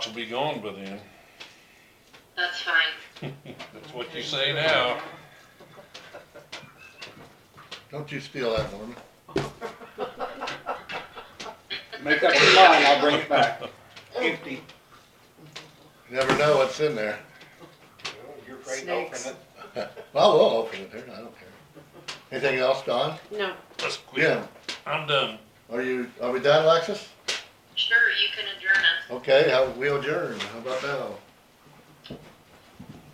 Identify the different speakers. Speaker 1: will be gone by then.
Speaker 2: That's fine.
Speaker 1: That's what you say now.
Speaker 3: Don't you steal that, Norman.
Speaker 4: Make up your mind, I'll bring it back. Empty.
Speaker 3: You never know what's in there.
Speaker 4: You're afraid to open
Speaker 5: Snakes.
Speaker 4: it.
Speaker 3: Well, we'll open it here, I don't care. Anything else, Don?
Speaker 5: No,
Speaker 1: Let's quit.
Speaker 3: Jim,
Speaker 1: I'm done.
Speaker 3: are you, are we done, Alexis?
Speaker 2: Sure, you can adjourn us.
Speaker 3: Okay, how, we adjourn, how about now?